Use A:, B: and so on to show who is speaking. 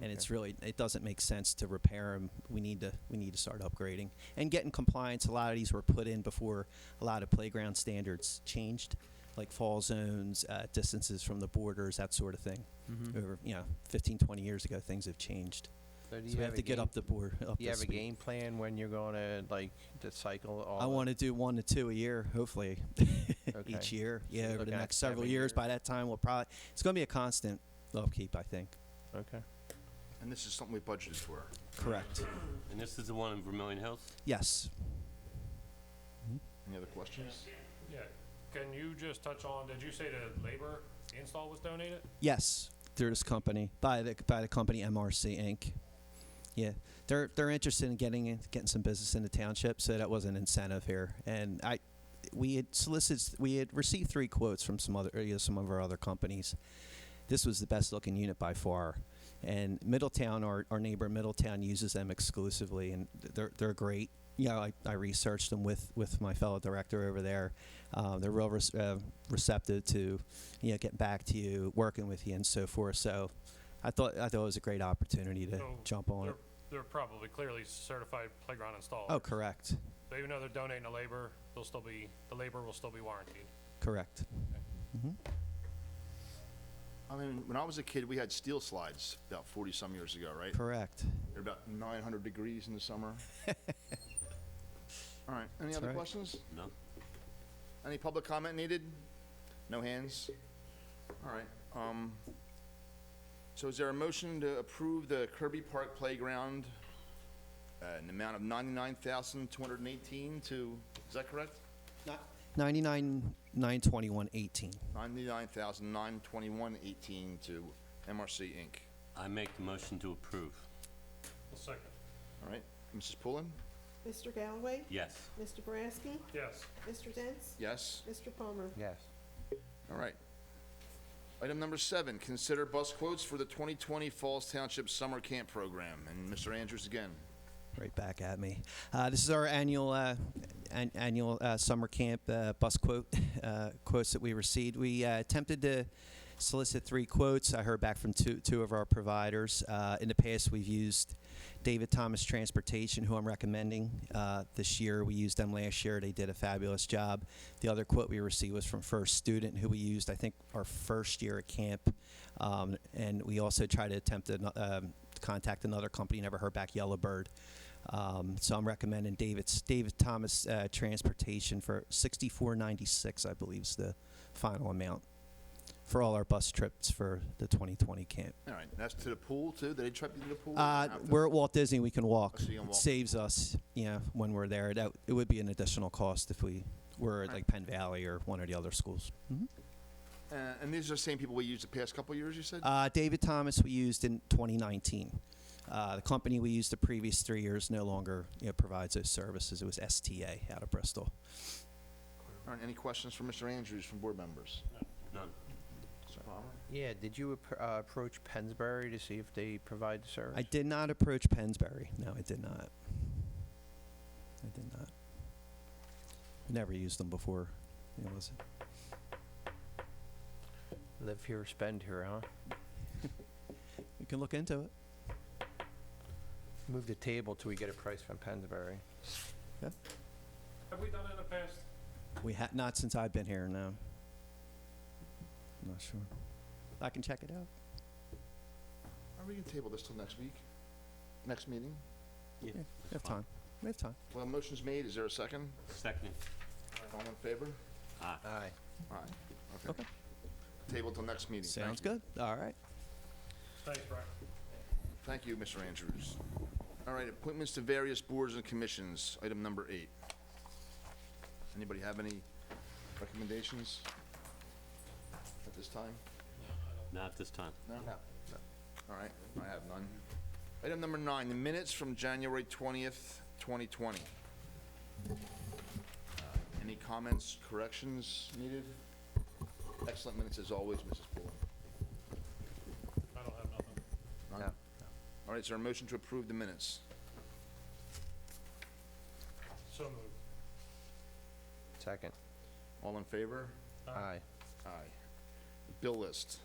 A: and it's really it doesn't make sense to repair them. We need to we need to start upgrading and get in compliance. A lot of these were put in before a lot of playground standards changed, like fall zones, uh, distances from the borders, that sort of thing.
B: Mm-hmm.
C: Mhm.
A: Over you know 15, 20 years ago, things have changed.
B: So do
A: So
B: you
A: we
B: have
A: have to
B: a
A: get
B: game,
A: up the board. Up
B: do you
A: to
B: have a
A: speed.
B: game plan when you're gonna like to cycle all?
A: I
B: the-
A: want to do one to two a year, hopefully,
B: Okay.
A: each year. Yeah, over the
B: looking at
A: next several
B: seven
A: years.
B: years.
A: By that time, we'll probably it's going to be a constant upkeep, I think.
B: Okay.
D: And this is something we budgeted for.
A: Correct.
E: And this is the one in Vermillion Hills?
A: Yes.
D: Any other questions?
F: Yeah, can you just touch on, did you say the labor install was donated?
A: Yes, through this company by the by the company MRC Inc. Yeah, they're they're interested in getting in- getting some business in the township, so that was an incentive here. And I, we had solicited, we had received three quotes from some other or, you know, some of our other companies. This was the best looking unit by far. And Middletown, our, our neighbor Middletown, uses them exclusively, and they're they're great. You know, I, I researched them with, with my fellow director over there. Um, they're real res- uh, receptive to you know, getting back to you, working with you, and so forth. So, I thought I thought it was a great opportunity to
F: So
A: jump on it.
F: They're, they're probably clearly certified playground installers.
A: Oh, correct,
F: So even though they're donating the labor, they'll still be, the labor will still be warranted.
A: correct.
D: I mean, when I was a kid, we had steel slides about 40-some years ago, right?
A: Correct.
D: They're about 900 degrees in the summer. All right, any
A: That's
D: other
A: right.
D: questions?
E: No?
D: Any public comment needed? No hands? All right, um, so is there a motion to approve the Kirby Park Playground uh, in the amount of 99218 to, is that correct?
A: Ninety-nine, nine twenty-one, eighteen.
D: 99921 18 to MRC Inc.
E: I make the motion to approve.
F: Well, second.
D: All right, Mrs. Pullen?
G: Mr. Galloway?
E: Yes.
G: Mr. Boraski?
F: Yes,
G: Mr. Dents?
D: Yes?
G: Mr. Palmer?
B: Yes.
D: All right. Item number seven, consider bus quotes for the 2020 Falls Township Summer Camp Program. And Mr. Andrews again.
A: Right back at me. Uh, this is our annual uh, an- annual uh, summer camp uh, bus quote uh, quotes that we received. We uh, attempted to solicit three quotes. I heard back from two two of our providers. Uh, in the past, we've used David Thomas Transportation, who I'm recommending uh, this year. We used them last year. They did a fabulous job. The other quote we received was from First Student, who we used I think our first year at camp, um, and we also tried to attempt to um, contact another company. Never heard back. Yellowbird. Um, so I'm recommending David's David Thomas uh, Transportation for 64.96, I believe, is the final amount for all our bus trips for the 2020 camp.
D: All right, that's to the pool too? Did they trip you to the pool?
A: Uh,
D: Have to-
A: we're at Walt Disney. We can walk.
D: Oh, so you
A: It
D: can walk.
A: saves us, you know, when we're there. That it would be an additional cost if we were at like Penn Valley or one of the other schools. Mhm.
D: Uh, And these are the same people we used the past couple years, you said?
A: Uh, David Thomas we used in 2019. Uh, the company we used the previous three years no longer you know, provides those services. It was STA out of Bristol.
D: All right, any questions for Mr. Andrews from board members?
E: None?
D: Mr. Palmer?
B: Yeah, did you appro- uh, approach Pensbury to see if they provide the service?
A: I did not approach Pensbury. No, I did not. I did not. Never used them before. It was
B: Live here, spend here, huh?
A: we can look into it.
B: Move the table till we get a price from Pensbury.
F: have we done it in the past?
A: We ha- not since I've been here. No. I'm not sure. I can check it out.
D: Are we going to table this till next week? Next meeting?
A: We have time. We have time.
D: Well, motion's made. Is there a second?
E: Second?
D: All in favor?
E: Aye.
B: Aye.
D: All right, okay. Table till next meeting. Thank
A: Sounds
D: you.
A: good. All right.
F: Thanks, Brian.
D: Thank you, Mr. Andrews. All right, appointments to various boards and commissions, item number eight. Anybody have any recommendations at this time?
E: Not this time.
D: No? All right, I have none. Item number nine, the minutes from January 20th, 2020. Uh, Any comments, corrections needed? Excellent minutes as always, Mrs. Bullen.
F: I don't have nothing.
D: None?
B: No.
D: All right, is there a motion to approve the minutes?
F: So moved.
B: Second.
D: All in favor?
F: Aye.
B: Aye.
D: Aye. Bill list.